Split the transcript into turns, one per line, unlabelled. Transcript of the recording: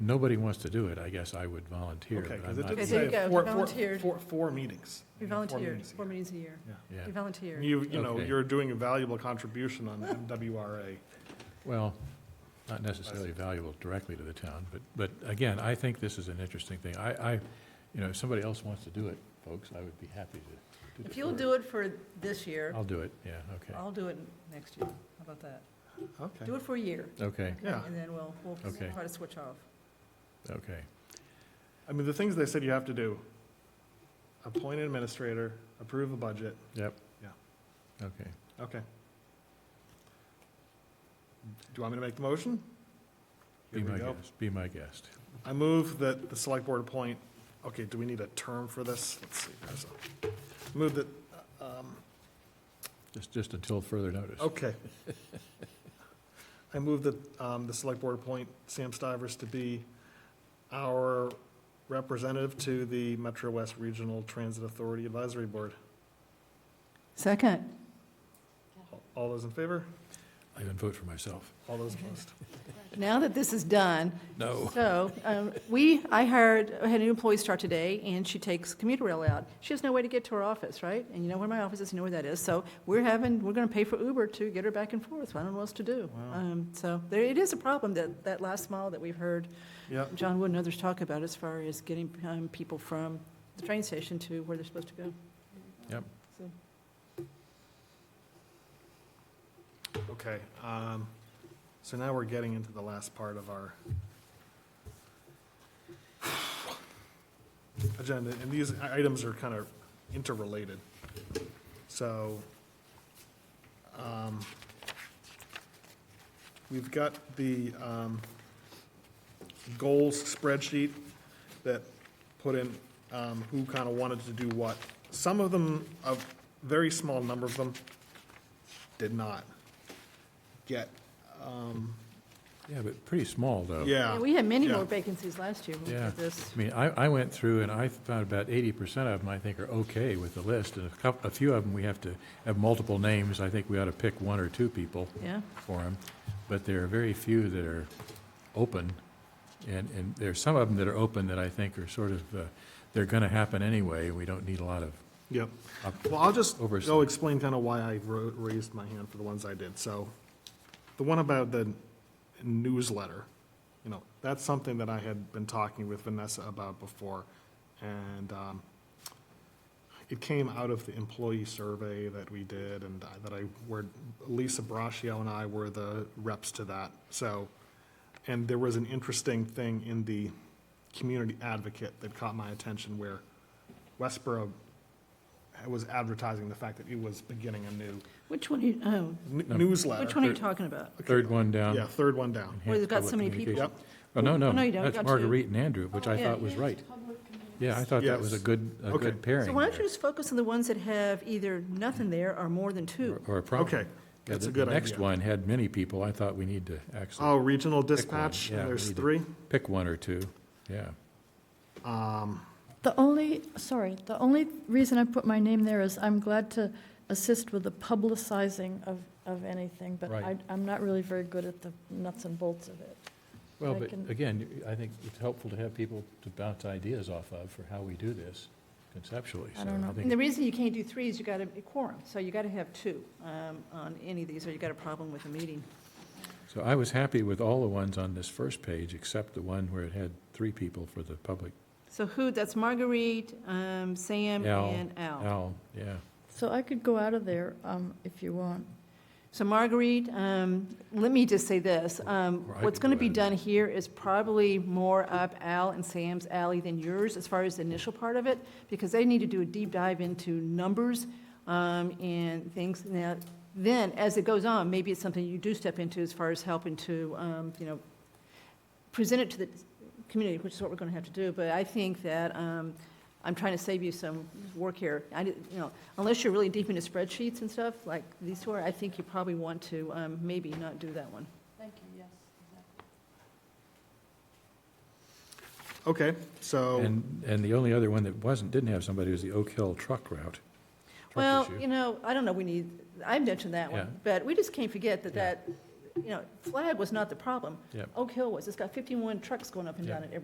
nobody wants to do it, I guess I would volunteer.
Okay,
but
because
I'm
it
not-
didn't
Okay, there you
say
go,
four,
you
four-
volunteered.
four- four meetings.
You
know, four
volunteered,
meetings a
four
year.
meetings a year.
Yeah,
You volunteered.
You, you know,
Okay.
you're doing a valuable contribution on MWRA.
well, not necessarily valuable directly to the town, but, but again, I think this is an interesting thing. I, I, you know, if somebody else wants to do it, folks, I would be happy to.
If you'll do it for this year,
I'll do it, yeah, Oh, okay,
I'll do it next year. How about that?
Okay.
Do it for a year.
okay,
Yeah.
And then we'll, we'll
Okay.
try to switch off.
okay.
I mean, the things they said you have to do, appoint an administrator, approve a budget,
Yep.
Yeah.
Okay.
okay. Do you want me to make the motion?
Be
Here
my
we go.
guest, be my guest.
I move that the select board appoint, okay, do we need a term for this? Let's see, there's a, move that, um,
Just, just until further notice.
Okay. I move that um, the select board appoint Sam Stivers to be our representative to the Metro West Regional Transit Authority Advisory Board.
Second.
All those in favor?
I didn't vote for myself.
All those opposed?
Now that this is done,
No.
so um, we, I hired, I had an employee start today, and she takes commuter rail out. She has no way to get to her office, right? And you know where my office is, you know where that is. So we're having, we're going to pay for Uber to get her back and forth. I don't know what else to do.
Wow.
Um, So there, it is a problem, that, that last mile that we've heard
Yeah,
John Wood and others talk about as far as getting um, people from the train station to where they're supposed to go.
Yep.
So,
okay. um, So now we're getting into the last part of our agenda, and these i- items are kind of interrelated. So, um, we've got the, um, goals spreadsheet that put in, um, who kind of wanted to do what. Some of them, a very small number of them, did not get, um,
Yeah, but pretty small, though.
yeah.
yeah, We had many
Yeah.
more vacancies last year when we
Yeah.
did this.
I mean, I, I went through and I found about eighty percent of them, I think, are okay with the list. And a couple, a few of them, we have to have multiple names. I think we ought to pick one or two people
Yeah,
for them. But there are very few that are open. And, and there are some of them that are open that I think are sort of, uh, they're going to happen anyway. We don't need a lot of,
Yep.
up-
Well, I'll just
Oversight.
go explain kind of why I ro- raised my hand for the ones I did. So the one about the newsletter, you know, that's something that I had been talking with Vanessa about before. And um, it came out of the employee survey that we did and I- that I, were Lisa Braccio and I were the reps to that. So, and there was an interesting thing in the community advocate that caught my attention where Westboro was advertising the fact that it was beginning a new
which one, you- oh,
n- newsletter.
which one are you talking about?
third um, one down.
Yeah, third one down.
Where they've got
Enhanced
so many
public
people.
communication.
Yep.
Oh, no,
Oh, no,
no,
you don't.
that's
Got two. Oh,
Marguerite and Andrew, which I
yeah.
thought was right. Yeah, I thought that was a
Yes.
good, a
Okay.
good pairing.
So why don't
there,
you just focus on the ones that have either nothing there or more than two?
or- Or a problem. Yeah,
Okay, that's
the-
a good
The next
idea.
one had many people. I thought we need to
Oh,
actually
regional dispatch,
yeah,
and
we
there's
need to-
three.
pick one or two. Yeah.
The only, sorry, the only reason I put my name there is I'm glad to assist with the publicizing of, of anything, but I,
Right.
I'm not really very good at the nuts and bolts of it.
Well,
I
but
can-
again, I think it's helpful to have people to bounce ideas off of for how we do this conceptually.
I don't
So
know.
And
think-
the reason you can't do three is you got a a quorum, so you got to have two um, on any of these, or you got a problem with the meeting.
So I was happy with all the ones on this first page, except the one where it had three people for the public.
So who, that's Marguerite, um, Sam,
Al,
and
Oh.
Al.
Al, yeah.
So I could go out of there, um, if you want.
So Marguerite, um, let me just say this, um,
Or I
what's
could
going to
go
be
ahead.
done here is probably more up Al and Sam's alley than yours as far as the initial part of it, because they need to do a deep dive into numbers um, and things. Now, then, as it goes on, maybe it's something you do step into as far as helping to, um, you know, present it to the community, which is what we're going to have to do. But I think that, um, I'm trying to save you some work here. I, did- you know, unless you're really deep into spreadsheets and stuff, like these two are, I think you probably want to um, maybe not do that one.
Thank you, yes.
Okay, so,
And, and the only other one that wasn't, didn't have somebody was the Oak Hill truck route. truck
Well,
issue.
you know, I don't know, we need, I mentioned that
Yeah.
one, but we just can't forget that
Yeah.
that you know, Flag was not the problem.
Yep.
Oak Hill was. It's got 51 trucks going up and down it every